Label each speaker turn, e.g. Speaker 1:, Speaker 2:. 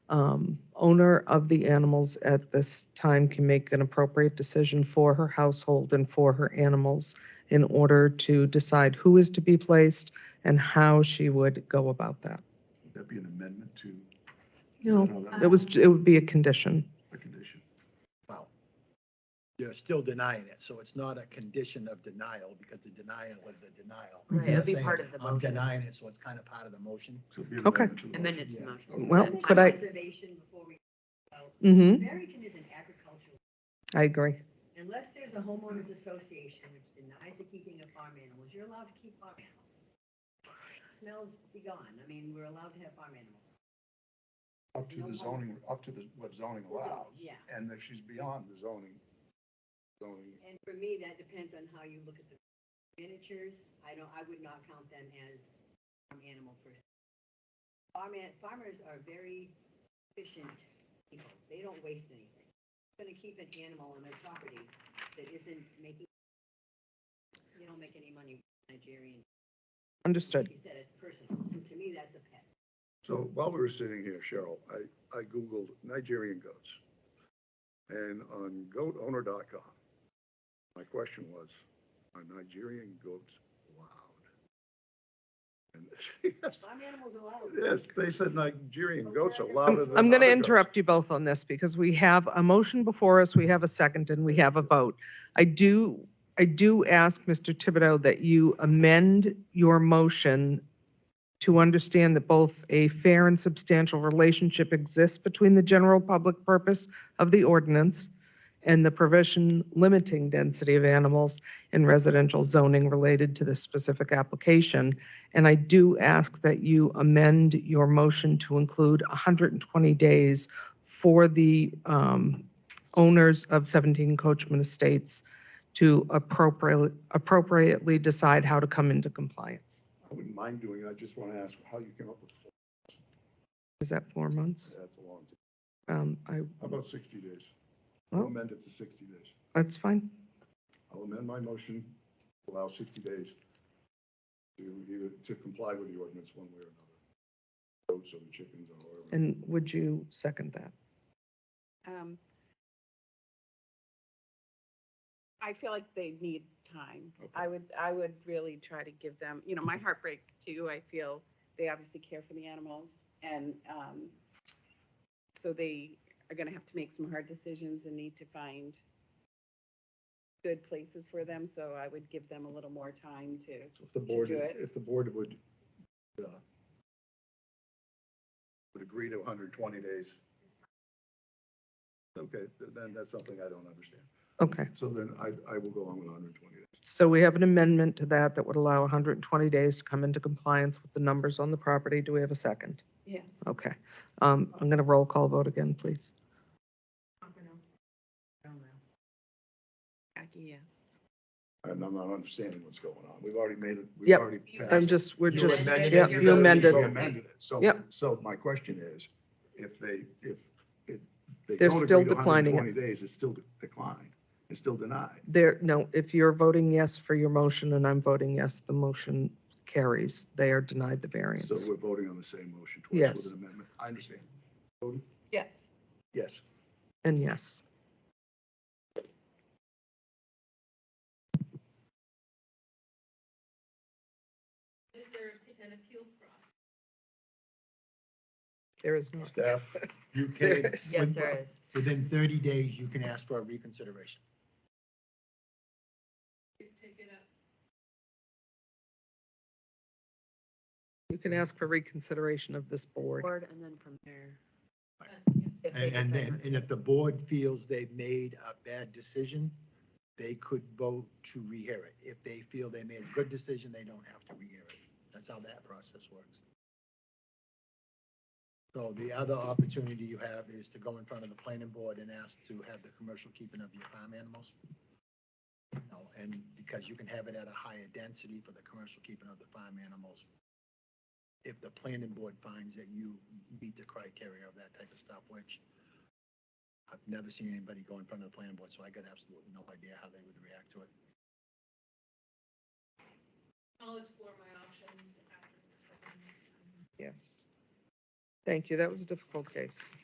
Speaker 1: um, owner of the animals at this time can make an appropriate decision for her household and for her animals in order to decide who is to be placed and how she would go about that.
Speaker 2: That'd be an amendment to.
Speaker 1: No,
Speaker 2: No, that
Speaker 1: it was, it would be a condition.
Speaker 2: a condition.
Speaker 3: Wow. You're still denying it, so it's not a condition of denial, because the denial is a denial.
Speaker 4: Right,
Speaker 3: You're
Speaker 4: it'd be
Speaker 3: saying,
Speaker 4: part of the
Speaker 3: I'm
Speaker 4: motion.
Speaker 3: denying it, so it's kind of part of the motion.
Speaker 2: So it'd be an
Speaker 1: Okay.
Speaker 2: amendment to the motion.
Speaker 4: Amended to the
Speaker 3: Yeah.
Speaker 4: motion.
Speaker 2: Okay.
Speaker 1: Well,
Speaker 5: One
Speaker 1: Oh, could I-
Speaker 5: Observation before we,
Speaker 1: Mm-hmm,
Speaker 5: Barrington is an agricultural,
Speaker 1: I agree.
Speaker 5: unless there's a homeowners association which denies the keeping of farm animals, you're allowed to keep farm animals. Smells be gone, I mean, we're allowed to have farm animals.
Speaker 2: Up to the zoning, up to the, what zoning allows.
Speaker 5: Yeah.
Speaker 2: And if she's beyond the zoning, zoning,
Speaker 5: And for me, that depends on how you look at the miniatures, I don't, I would not count them as farm animal per se. Farm, an- farmers are very efficient people, they don't waste anything. Gonna keep an animal on their property that isn't making, you don't make any money Nigerian.
Speaker 1: Understood.
Speaker 5: She said it's personal, so to me, that's a pet.
Speaker 2: so while we were sitting here, Cheryl, I, I Googled Nigerian goats. And on goatowner.com, my question was, are Nigerian goats loud? And yes,
Speaker 5: Farm animals are loud.
Speaker 2: yes, they said Nigerian goats are louder than.
Speaker 1: I'm going to
Speaker 2: other goats.
Speaker 1: interrupt you both on this because we have a motion before us, we have a second, and we have a vote. I do, I do ask Mr. Thibodeau that you amend your motion to understand that both a fair and substantial relationship exists between the general public purpose of the ordinance and the provision limiting density of animals in residential zoning related to this specific application. And I do ask that you amend your motion to include 120 days for the um, owners of 17 Coachman Estates to appropriately, appropriately decide how to come into compliance.
Speaker 2: I wouldn't mind doing it. I just want to ask how you came up with four.
Speaker 1: Is that four months?
Speaker 2: That's a long time.
Speaker 1: Um, I,
Speaker 2: How about 60 days?
Speaker 1: Well-
Speaker 2: I'll amend it to 60 days.
Speaker 1: that's fine.
Speaker 2: I'll amend my motion, to allow 60 days to either, to comply with the ordinance one way or another. Goats or the chickens or whatever.
Speaker 1: And would you second that?
Speaker 6: um, I feel like they need time. I would, I would really try to give them, you know, my heart breaks too. I feel they obviously care for the animals and, um, so they are gonna have to make some hard decisions and need to find good places for them. So I would give them a little more time to,
Speaker 2: So If the board,
Speaker 6: do it.
Speaker 2: if the board would, uh, would agree to 120 days. Okay, th- then that's something I don't understand.
Speaker 1: Okay,
Speaker 2: So then I, I will go along with 120 days.
Speaker 1: so we have an amendment to that that would allow 120 days to come into compliance with the numbers on the property. Do we have a second?
Speaker 6: yes.
Speaker 1: Okay, um, I'm going to roll call vote again, please.
Speaker 6: Jackie, yes.
Speaker 2: And I'm not understanding what's going on. We've already made it, we've
Speaker 1: Yep.
Speaker 2: already passed.
Speaker 1: I'm just, we're
Speaker 2: You
Speaker 1: just,
Speaker 2: amended
Speaker 1: yeah,
Speaker 2: it.
Speaker 1: you amended.
Speaker 2: You amended it. So,
Speaker 1: Yep.
Speaker 2: so my question is, if they, if, if they
Speaker 1: They're
Speaker 2: don't
Speaker 1: still
Speaker 2: agree to
Speaker 1: declining it.
Speaker 2: 120 days, it's still declined, it's still denied.
Speaker 1: There, no, if you're voting yes for your motion and I'm voting yes, the motion carries. They are denied the
Speaker 2: So
Speaker 1: variance.
Speaker 2: we're voting on the same motion twice
Speaker 1: Yes.
Speaker 2: with an amendment. I understand.
Speaker 6: Yes.
Speaker 2: Yes.
Speaker 1: And yes. There is not.
Speaker 2: Staff?
Speaker 3: You
Speaker 1: There
Speaker 3: can,
Speaker 1: is.
Speaker 4: Yes, there is.
Speaker 3: within 30 days, you can ask for a reconsideration.
Speaker 1: You can ask for reconsideration of this board.
Speaker 4: Board, and then from there. If they
Speaker 3: And and
Speaker 4: decide
Speaker 3: then,
Speaker 4: not
Speaker 3: and if the board feels they've made a bad decision, they could vote to rehear it. If they feel they made a good decision, they don't have to rehear it. That's how that process works. So the other opportunity you have is to go in front of the planning board and ask to have the commercial keeping of your farm animals. You know, And because you can have it at a higher density for the commercial keeping of the farm animals. If the planning board finds that you meet the criteria of that type of stuff, which I've never seen anybody go in front of the planning board, so I got absolutely no idea how they would react to it.
Speaker 7: I'll explore my options after. the second.
Speaker 1: Yes. Thank you. That was a difficult case.